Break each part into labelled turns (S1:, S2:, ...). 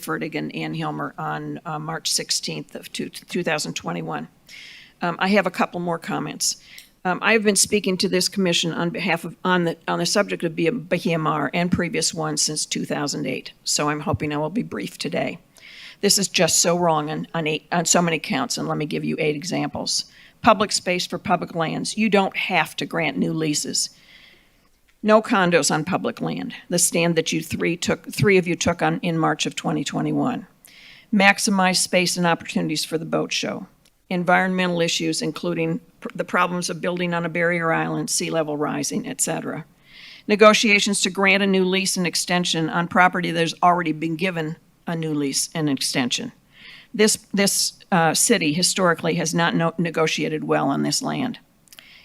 S1: Fertig and Ann Hilmer on uh, March 16th of two- 2021. Um, I have a couple more comments. Um, I have been speaking to this commission on behalf of, on the, on the subject of B- BMR and previous ones since 2008, so I'm hoping I will be brief today. This is just so wrong on, on eight, on so many counts, and let me give you eight examples. Public space for public lands, you don't have to grant new leases. No condos on public land, the stand that you three took, three of you took on, in March of 2021. Maximize space and opportunities for the boat show. Environmental issues, including pr- the problems of building on a barrier island, sea level rising, et cetera. Negotiations to grant a new lease and extension on property that has already been given a new lease and extension. This, this uh, city historically has not no- negotiated well on this land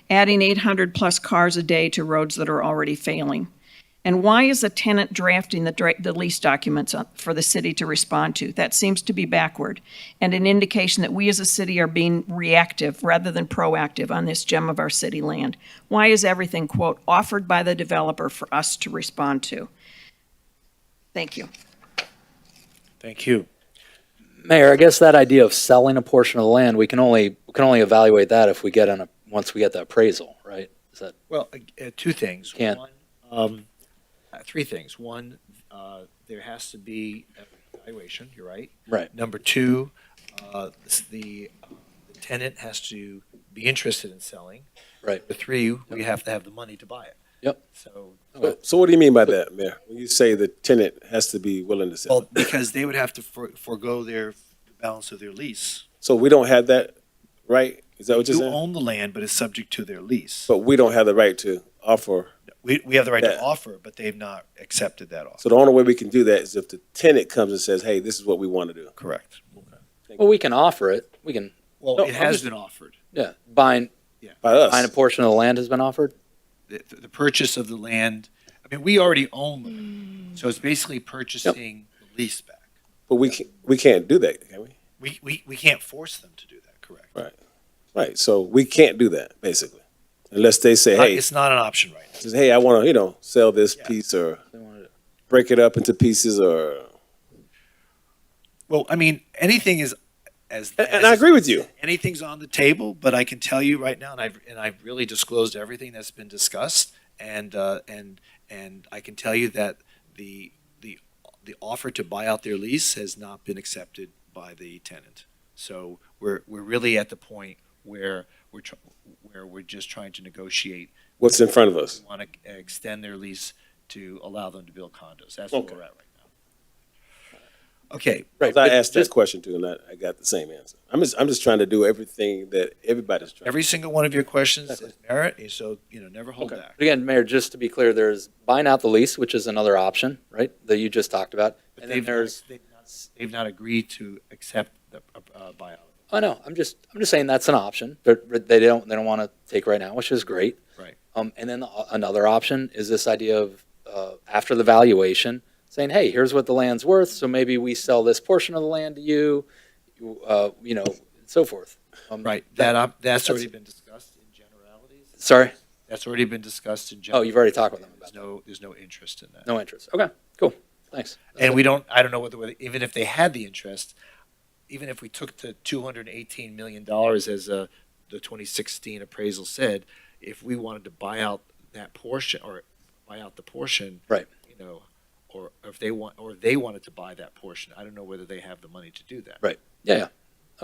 S1: adding 800-plus cars a day to roads that are already failing? And why is a tenant drafting the, dra- the lease documents uh, for the city to respond to? That seems to be backward, and an indication that we as a city are being reactive rather than proactive on this gem of our city land. Why is everything, quote, "offered by the developer for us to respond to"? Thank you.
S2: Thank you.
S3: Mayor, I guess that idea of selling a portion of the land, we can only, we can only evaluate that if we get an, once we get the appraisal, right? Is that,
S2: Well, uh, uh, two things.
S3: Can't.
S2: One, um, uh, Three things. One, uh, there has to be a evaluation, you're right.
S3: Right.
S2: Number two, uh, s- the the tenant has to be interested in selling.
S3: right?
S2: Number three, we have to have the money to buy it.
S3: Yep.
S2: So,
S4: So- So what do you mean by that, Mayor? When you say the tenant has to be willing to sell?
S2: well, because they would have to for- forego their the balance of their lease.
S4: So we don't have that right? Is that what you're
S2: You
S4: saying?
S2: own the land, but it's subject to their lease.
S4: But we don't have the right to offer.
S2: We, we have the right to
S4: Yeah.
S2: offer, but they've not accepted that offer.
S4: So the only way we can do that is if the tenant comes and says, hey, this is what we want to do.
S2: Correct.
S3: Well, we can offer it. We can,
S2: Well,
S4: No,
S2: it
S4: I'm
S2: has
S4: just-
S2: been offered.
S3: yeah, buying,
S4: By
S3: buying a
S4: us,
S3: portion of the land has been offered?
S2: the, the purchase of the land. I mean, we already own the land, so it's basically purchasing the lease back.
S4: but we can't, we can't do that, can we?
S2: We, we, we can't force them to do that, correct?
S4: Right. Right, so we can't do that, basically. Unless they say,
S2: Not-
S4: hey,
S2: It's not an option right now.
S4: says, hey, I want to, you know, sell this
S2: Yeah.
S4: piece or
S3: They wanted it.
S4: break it up into pieces or,
S2: Well, I mean, anything is, as.
S4: and,
S2: as
S4: and I agree with you.
S2: Anything's on the table, but I can tell you right now, and I've, and I've really disclosed everything that's been discussed. And, uh, and, and I can tell you that the, the, the offer to buy out their lease has not been accepted by the tenant. So we're, we're really at the point where we're, tr- where we're just trying to negotiate.
S4: What's in front of us?
S2: We want to extend their lease to allow them to build condos. That's where
S4: Okay.
S2: we're at right now. Okay,
S3: Right.
S4: I
S3: but
S4: asked that
S3: just-
S4: question too, and I, I got the same answer. I'm just, I'm just trying to do everything that everybody's trying.
S2: every single one of your questions is merit, and so, you know, never hold
S3: Okay.
S2: back.
S3: But Again, Mayor, just to be clear, there's buying out the lease, which is another option, right? That you just talked about.
S2: But
S3: And then
S2: they've
S3: there's,
S2: not, they've not, they've not agreed to accept the uh, buyout.
S3: oh no, I'm just, I'm just saying that's an option. They're, they don't, they don't want to take right now, which is great.
S2: Right.
S3: Um, and then a- another option is this idea of, uh, after the valuation, saying, hey, here's what the land's worth, so maybe we sell this portion of the land to you, you, uh, you know, and so forth. Um,
S2: Right, that, op- that's
S3: that's-
S2: already been discussed in generalities.
S3: Sorry,
S2: That's already been discussed in general.
S3: Oh, you've already talked with them about
S2: There's no, there's no interest in that.
S3: no interest. Okay, cool, thanks.
S2: And we don't, I don't know whether, whether- even if they had the interest, even if we took the two hundred and eighteen million dollars as uh the twenty sixteen appraisal said, if we wanted to buy out that portion, or buy out the portion.
S3: Right.
S2: You know, or or if they want, or they wanted to buy that portion, I don't know whether they have the money to do that.
S3: Yeah,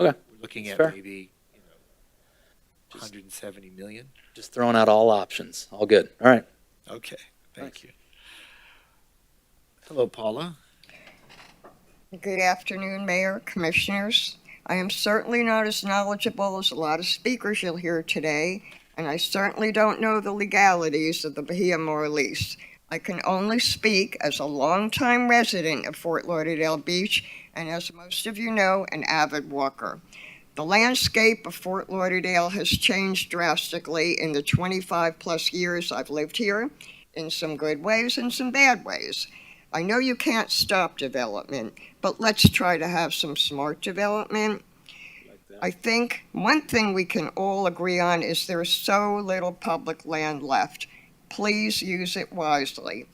S3: yeah,
S2: We're looking
S3: It's
S2: at
S3: fair.
S2: maybe, you know, hundred and seventy million.
S3: just throwing out all options, all good, all right.
S2: Okay, thank you. Hello, Paula.
S5: Good afternoon, Mayor, Commissioners. I am certainly not as knowledgeable as a lot of speakers you'll hear today, and I certainly don't know the legalities of the Bahia lease. I can only speak as a longtime resident of Fort Lauderdale Beach and, as most of you know, an avid walker. The landscape of Fort Lauderdale has changed drastically in the 25-plus years I've lived here, in some good ways and some bad ways. I know you can't stop development, but let's try to have some smart development. I think one thing we can all agree on is there's so little public land left. Please use it wisely.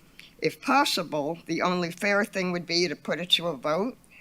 S5: If possible, the only fair thing would be to put it to a vote